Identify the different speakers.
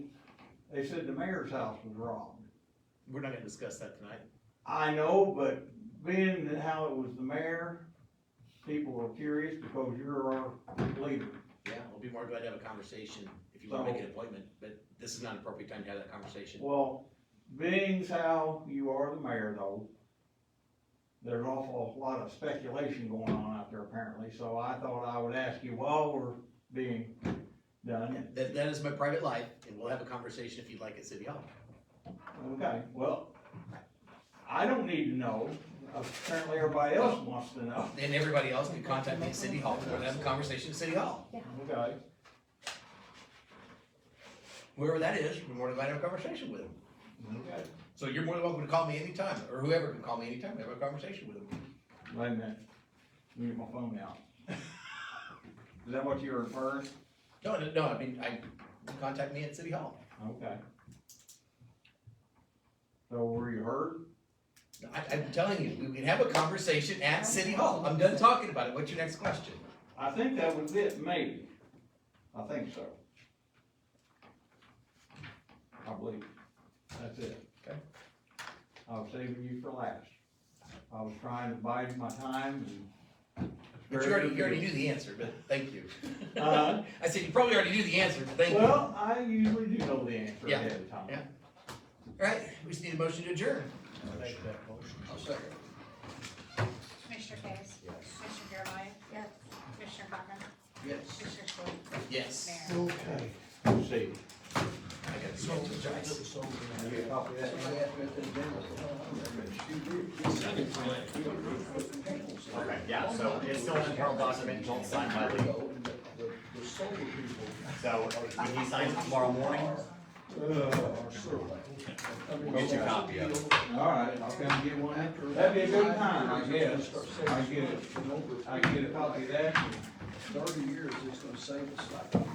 Speaker 1: They said the mayor's house was robbed.
Speaker 2: We're not gonna discuss that tonight.
Speaker 1: I know, but being that how it was the mayor, people were curious because you're our leader.
Speaker 2: Yeah, I'll be more glad to have a conversation if you wanna
Speaker 1: So-
Speaker 2: make an appointment, but this is not an appropriate time to have that conversation.
Speaker 1: Well, being how you are the mayor though, there's an awful lot of speculation going on out there apparently, so I thought I would ask you while we're being done.
Speaker 2: That, that is my private life, and we'll have a conversation if you'd like at City Hall.
Speaker 1: Okay, well, I don't need to know, apparently everybody else wants to know.
Speaker 2: And everybody else can contact me at City Hall, and we'll have a conversation at City Hall.
Speaker 1: Okay,
Speaker 2: Whoever that is, we're more than glad to have a conversation with them.
Speaker 1: okay.
Speaker 2: So you're more than welcome to call me anytime, or whoever can call me anytime, have a conversation with them.
Speaker 1: Wait a minute, let me get my phone out. Is that what you were referring?
Speaker 2: No, no, no, I mean, I, contact me at City Hall.
Speaker 1: Okay. So were you heard?
Speaker 2: I, I'm telling you, we can have a conversation at City Hall. I'm done talking about it. What's your next question?
Speaker 1: I think that was it, maybe. I think so. I believe, that's it.
Speaker 2: Okay.
Speaker 1: I was saving you for last. I was trying to bide my time and.
Speaker 2: But you already, you already knew the answer, but thank you. Uh,
Speaker 1: Uh-huh.
Speaker 2: I said, you probably already knew the answer, but thank you. All
Speaker 1: Well, I usually do know the answer
Speaker 2: Yeah,
Speaker 1: ahead of time.
Speaker 2: yeah. right, we just need a motion to adjourn. I'll second.
Speaker 3: Commissioner Case? Yes. Commissioner Garvelia? Yes. Commissioner Cochran?
Speaker 2: Yes.
Speaker 3: Commissioner Story?
Speaker 2: Yes.
Speaker 3: Mayor?
Speaker 1: Okay. See.
Speaker 2: I gotta apologize.
Speaker 1: You copy that?
Speaker 4: Okay, yeah, so it's still an internal document until it's signed by Lee. So when he signs it tomorrow morning,
Speaker 1: Uh,
Speaker 4: we'll get you a copy of it.
Speaker 1: All right, I'll come get one after. That'd be a good time, I guess. I get it. I get a copy of that.
Speaker 5: Thirty years, it's gonna save us like.